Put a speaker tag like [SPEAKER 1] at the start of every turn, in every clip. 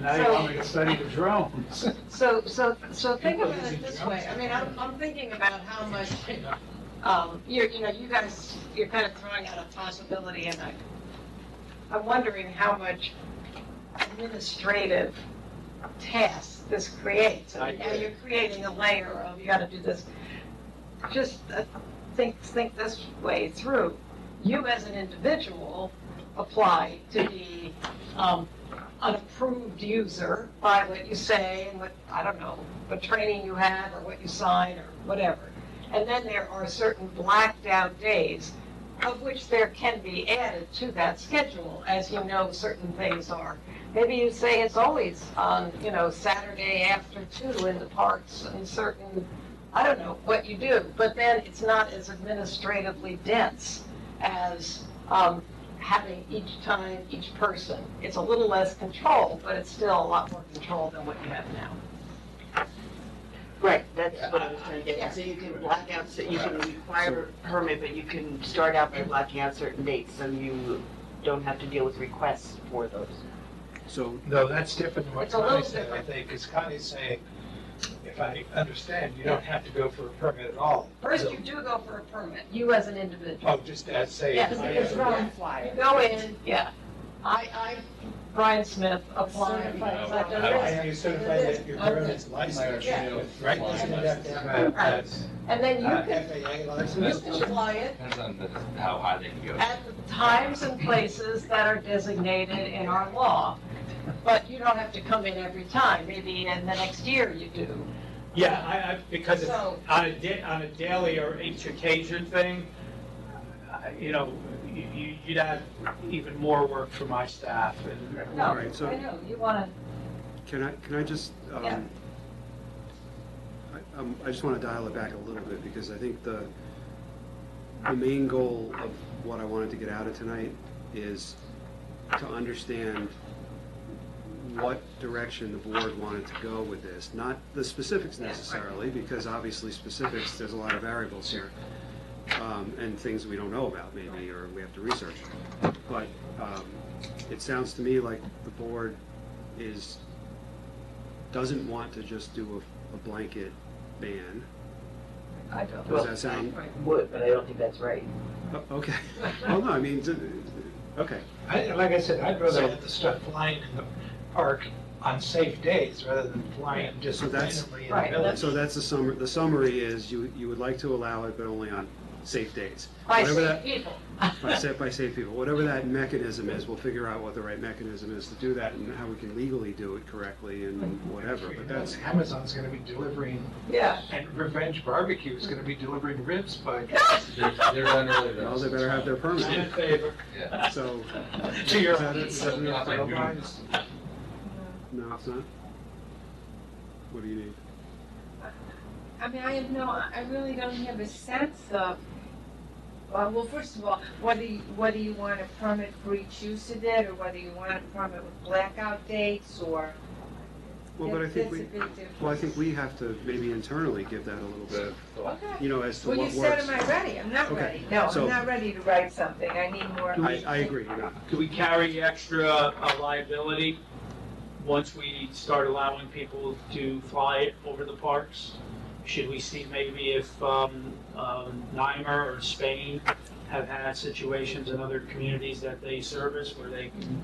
[SPEAKER 1] now you want me to study the drones.
[SPEAKER 2] So, so, so think about it this way, I mean, I'm, I'm thinking about how much, um, you're, you know, you guys, you're kind of throwing out a possibility, and I, I'm wondering how much administrative tasks this creates. I mean, now you're creating a layer of, you gotta do this, just uh, think, think this way through. You as an individual apply to be, um, an approved user by what you say and what, I don't know, what training you have or what you sign or whatever. And then there are certain blacked out days of which there can be added to that schedule, as you know certain things are. Maybe you say it's always on, you know, Saturday after two in the parks and certain, I don't know what you do, but then it's not as administratively dense as, um, having each time, each person. It's a little less control, but it's still a lot more control than what you have now.
[SPEAKER 3] Right, that's what I was trying to get at. So you can black out, so you can require a permit, but you can start out by blocking out certain dates and you don't have to deal with requests for those.
[SPEAKER 4] So,
[SPEAKER 1] No, that's different than what
[SPEAKER 2] It's a little
[SPEAKER 1] Connie said, I
[SPEAKER 2] different.
[SPEAKER 1] think, because Connie's saying, if I understand, you don't have to go for a permit at all.
[SPEAKER 2] First, you do go for a permit, you as an individual.
[SPEAKER 1] Oh, just as say.
[SPEAKER 2] Yes,
[SPEAKER 1] I-
[SPEAKER 2] it's wrong. You go in, yeah. I, I, Brian Smith, applied. I've done
[SPEAKER 1] I
[SPEAKER 2] this.
[SPEAKER 1] am certified that your drone is licensed, right? Isn't that, uh,
[SPEAKER 2] Right. And then
[SPEAKER 1] uh,
[SPEAKER 2] you
[SPEAKER 1] FAA
[SPEAKER 2] can, you
[SPEAKER 1] license?
[SPEAKER 2] can apply it
[SPEAKER 5] Depends on the, how high they can go.
[SPEAKER 2] at the times and places that are designated in our law. But you don't have to come in every time, maybe in the next year you do.
[SPEAKER 6] Yeah, I, I, because it's
[SPEAKER 2] So-
[SPEAKER 6] on a di, on a daily or each occasion thing, I- you know, you- you, you'd have even more work for my staff and.
[SPEAKER 2] No,
[SPEAKER 4] All
[SPEAKER 2] I
[SPEAKER 4] right, so-
[SPEAKER 2] know, you wanna,
[SPEAKER 4] can I, can I just,
[SPEAKER 2] Yeah.
[SPEAKER 4] um, I, um, I just want to dial it back a little bit, because I think the, the main goal of what I wanted to get out of tonight is to understand what direction the board wanted to go with this, not the specifics
[SPEAKER 2] Yeah, right.
[SPEAKER 4] necessarily, because obviously specifics, there's a lot of variables here, um, and things we don't know about maybe, or we have to research. But, um, it sounds to me like the board is, doesn't want to just do a, a blanket ban.
[SPEAKER 2] I don't.
[SPEAKER 4] Does that sound,
[SPEAKER 2] Right.
[SPEAKER 3] Would, but I don't think that's right.
[SPEAKER 4] oh, okay, well, no, I mean, d- d- okay,
[SPEAKER 1] I, like I said, I'd rather
[SPEAKER 4] So-
[SPEAKER 1] have the stuff flying in the park on safe days rather than flying just
[SPEAKER 4] So that's-
[SPEAKER 1] randomly in the
[SPEAKER 2] Right,
[SPEAKER 1] village.
[SPEAKER 4] So that's the summary, the summary is you, you would like to allow it, but only on safe days.
[SPEAKER 2] By
[SPEAKER 4] Whatever
[SPEAKER 2] safe
[SPEAKER 4] that-
[SPEAKER 2] people.
[SPEAKER 4] By safe, by safe people, whatever that mechanism is, we'll figure out what the right mechanism is to do that and how we can legally do it correctly and whatever, but that's,
[SPEAKER 1] Amazon's gonna be delivering,
[SPEAKER 2] Yeah.
[SPEAKER 1] and Revenge Barbecue is gonna be delivering ribs by.
[SPEAKER 5] They're, they're done early though.
[SPEAKER 4] well, they better have their
[SPEAKER 1] I'm in
[SPEAKER 4] permit,
[SPEAKER 1] favor.
[SPEAKER 5] Yeah.
[SPEAKER 4] so,
[SPEAKER 1] To your.
[SPEAKER 4] Is that it? Is that enough?
[SPEAKER 1] Well,
[SPEAKER 4] no, it's not. What do you need?
[SPEAKER 7] I mean, I have no, I really don't have a sense of, well, well, first of all, whether, you- whether you want a permit for each use of it, or whether you want a permit with blackout dates, or.
[SPEAKER 4] Well, but I
[SPEAKER 7] that-
[SPEAKER 4] think
[SPEAKER 7] that's
[SPEAKER 4] we,
[SPEAKER 7] a big difference.
[SPEAKER 4] well, I think we have to maybe internally give that a little bit, of,
[SPEAKER 7] Okay.
[SPEAKER 4] you know, as to
[SPEAKER 7] Well, you
[SPEAKER 4] what
[SPEAKER 7] said,
[SPEAKER 4] works.
[SPEAKER 7] am I ready? I'm not
[SPEAKER 4] Okay.
[SPEAKER 7] ready. No,
[SPEAKER 4] So-
[SPEAKER 7] I'm not ready to write something. I need more.
[SPEAKER 4] I, I agree, you're not.
[SPEAKER 6] Do we carry extra uh, liability once we start allowing people to fly over the parks? Should we see maybe if um, um, Nimer or Spain have had situations in other communities that they service where they can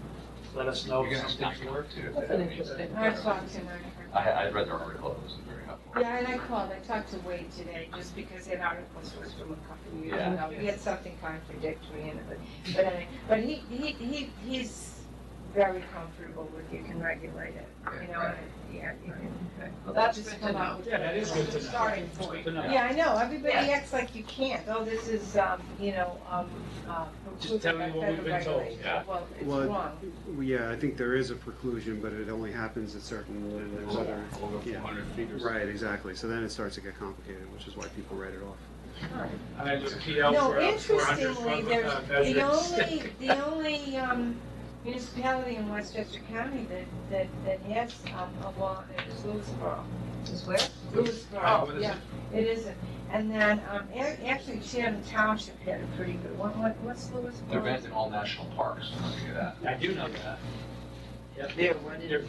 [SPEAKER 6] let us know if
[SPEAKER 5] You're gonna have
[SPEAKER 6] something's
[SPEAKER 5] to
[SPEAKER 6] working?
[SPEAKER 5] work too.
[SPEAKER 2] That's an interesting-
[SPEAKER 7] I talked to my.
[SPEAKER 5] I, I read their article, it was very helpful.
[SPEAKER 7] Yeah, and I called, I talked to Wade today, just because that article was from a couple of years
[SPEAKER 5] Yeah.
[SPEAKER 7] ago, he had something contradictory in it, but, but anyway, but he, he, he, he's very comfortable with you can regulate it, you know, and, yeah, you can.
[SPEAKER 2] Well, that's
[SPEAKER 7] just
[SPEAKER 2] good to
[SPEAKER 7] come
[SPEAKER 2] know.
[SPEAKER 7] out with-
[SPEAKER 6] Yeah, that is good
[SPEAKER 2] It's a
[SPEAKER 6] to know.
[SPEAKER 2] starting
[SPEAKER 6] It's good
[SPEAKER 2] point.
[SPEAKER 6] to know.
[SPEAKER 7] Yeah, I know, everybody
[SPEAKER 2] Yeah.
[SPEAKER 7] acts like you can't, oh, this is, um, you know, um, uh.
[SPEAKER 6] Just tell me
[SPEAKER 7] proven by
[SPEAKER 6] what we've
[SPEAKER 7] federal
[SPEAKER 6] been told,
[SPEAKER 7] regulation.
[SPEAKER 5] yeah.
[SPEAKER 7] Well, it's
[SPEAKER 4] Well,
[SPEAKER 7] wrong,
[SPEAKER 4] Well, Yeah, I think there is a preclusion, but it only happens at certain, and there's other,
[SPEAKER 5] Over
[SPEAKER 4] Yeah.
[SPEAKER 5] 400 feet or something.
[SPEAKER 4] right, exactly. So then it starts to get complicated, which is why people write it off.
[SPEAKER 6] I have a PL
[SPEAKER 7] No,
[SPEAKER 6] for uh, a 400
[SPEAKER 7] interestingly,
[SPEAKER 6] foot
[SPEAKER 7] there's
[SPEAKER 6] uh,
[SPEAKER 7] The
[SPEAKER 6] measure.
[SPEAKER 7] only, the only um, municipality in Westchester County that, that, that has um, a law that is Lewisboro.
[SPEAKER 2] Is where?
[SPEAKER 6] Oh,
[SPEAKER 7] Lewisboro, yeah, it isn't. And then, um, a- actually Chatham Township had a pretty good one, what, what's Lewisboro?
[SPEAKER 5] They're banned in all national parks, I'll tell you that.
[SPEAKER 6] I do know that. Yep.
[SPEAKER 3] There, what
[SPEAKER 6] They're-